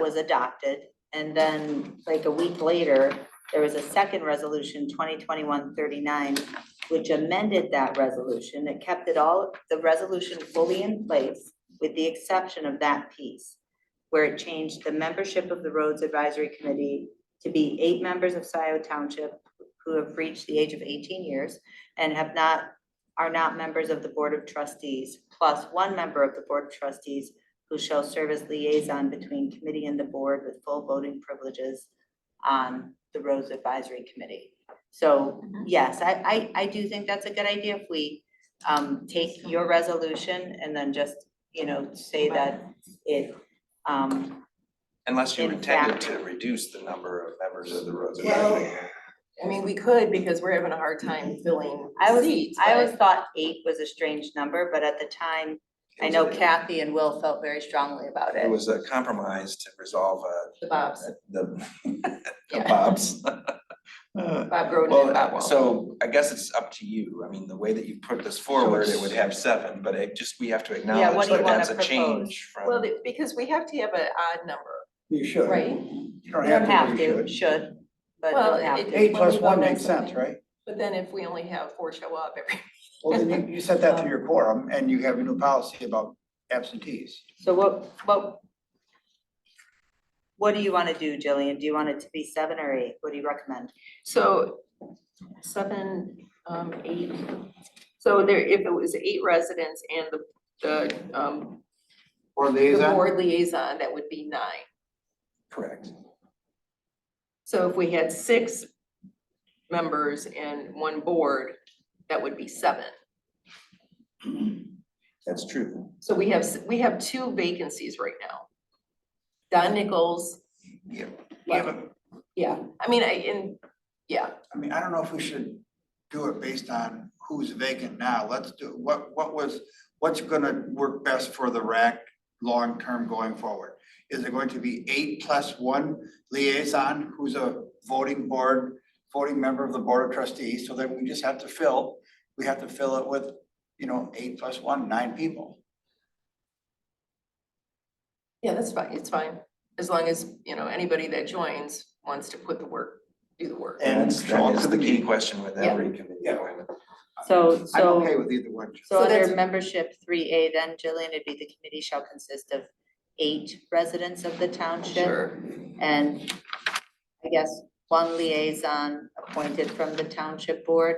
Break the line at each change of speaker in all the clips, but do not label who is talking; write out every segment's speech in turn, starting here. was adopted. And then like a week later, there was a second resolution, 2021-39, which amended that resolution. It kept it all, the resolution fully in place with the exception of that piece where it changed the membership of the Roads Advisory Committee to be eight members of Scioto Township who have reached the age of eighteen years and have not, are not members of the Board of Trustees, plus one member of the Board of Trustees who shall serve as liaison between committee and the board with full voting privileges on the Roads Advisory Committee. So,
Mm-hmm.
yes, I, I, I do think that's a good idea if we, um, take your resolution and then just, you know, say that it, um,
Unless you
In
intended
fact-
to reduce the number of members of the roads.
Well,
advisory.
I mean, we could because we're having a hard time filling
I was,
seats,
I always
but
thought eight was a strange number, but at the time, I know Kathy and Will felt very strongly about
It
it.
was a compromise to resolve uh,
The Bob's,
the the
Yeah.
Bob's. Uh,
Bob Roden and Bob
Well,
Wall.
so I guess it's up to you. I mean, the way that you put this forward, it would have seven, but it just, we have to acknowledge
do you
that
wanna
that's a change from.
Well, the- because we have to have an odd number,
You should.
right?
You don't
You don't
have to, but you
to,
should.
should, but
Well,
don't have
it-
to.
Eight plus
Well,
one
that's
makes sense,
something.
right?
But then if we only have four show up every,
Well, then you, you set that to your quorum and you have a new policy about absentees.
So what, what? What do you want to do, Jillian? Do you want it to be seven or eight? What do you recommend?
so seven, um, eight. So there, if it was eight residents and the, the, um,
Or
the board liaison, that would be nine.
Correct.
So if we had six members and one board, that would be seven.
That's true.
So we have, s- we have two vacancies right now. Don Nichols.
Yeah.
Yeah, yeah, I mean, I, and, yeah,
I mean, I don't know if we should do it based on who's vacant now. Let's do, what, what was, what's gonna work best for the rack long-term going forward? Is it going to be eight plus one liaison who's a voting board, voting member of the board of trustees? So then we just have to fill, we have to fill it with, you know, eight plus one, nine people.
yeah, that's fine, it's fine. As long as, you know, anybody that joins wants to put the work, do the work.
And
That's, that is the key
Sean-
question with
Yeah.
every committee.
Yeah.
appointment.
So,
I'm
so.
okay with either one.
So
So
under
that's-
membership three A, then Jillian, it'd be the committee shall consist of eight residents of the township.
Sure,
And I guess one liaison appointed from the township board.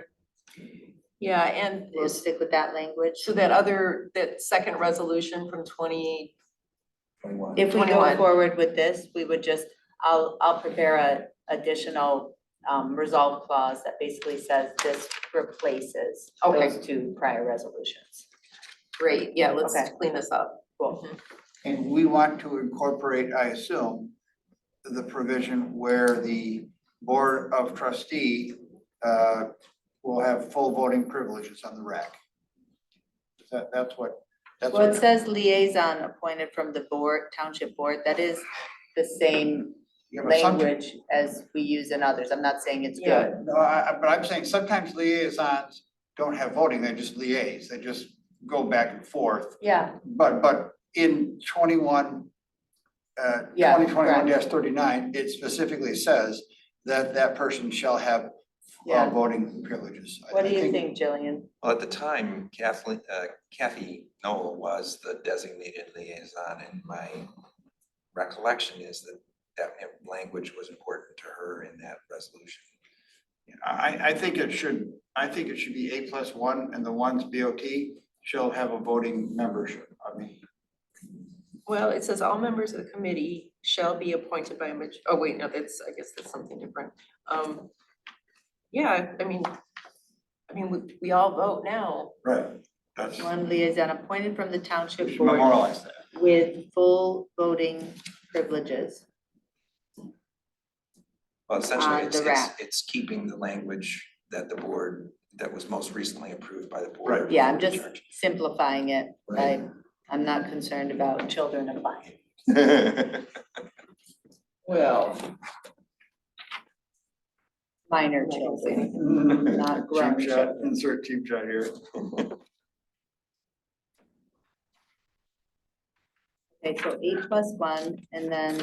yeah, and
We'll stick with that language.
so that other, that second resolution from twenty,
Twenty-one.
If we go
21.
forward with this, we would just, I'll, I'll prepare a additional um resolve clause that basically says this replaces
Okay.
those two prior resolutions.
great, yeah, let's
Okay.
clean this up. Mm-hmm.
Cool.
And we want to incorporate, I assume, the provision where the Board of Trustee uh, will have full voting privileges on the rack. That, that's what, that's
Well, it
what,
says liaison appointed from the board, township board, that is the same
you know, some-
language as we use in others. I'm not saying it's
Yeah.
good.
No, I, I- but I'm saying sometimes liaisons don't have voting, they just liaise, they just go back and forth.
Yeah.
But, but in twenty-one, uh,
Yeah,
twenty twenty-one thirty-nine, it specifically says that that person shall have
Yeah.
uh, voting privileges. I-
What
I
do you think, Jillian?
Well, at the time Kathleen, uh, Kathy Noel was the designated liaison and my recollection is that that language was important to her in that resolution.
I, I think it should, I think it should be A plus one and the ones BOT shall have a voting membership. I mean,
Well, it says all members of the committee shall be appointed by a maj- oh, wait, no, that's, I guess that's something different. Um, yeah, I mean, I mean, we, we all vote now.
right. That's,
One liaison appointed from the
we
township
should
board
memorialize that.
with full voting privileges.
Well, essentially,
On
it's,
Ah, the
it's,
rack.
it's keeping the language that the board, that was most recently approved by the
Right.
board.
Yeah, I'm just
Church.
simplifying it.
Right.
I, I'm not concerned about children applying.
Well.
Minor children, not grown
Cheap
children.
shot, insert cheap shot here.
Okay, so eight plus one, and then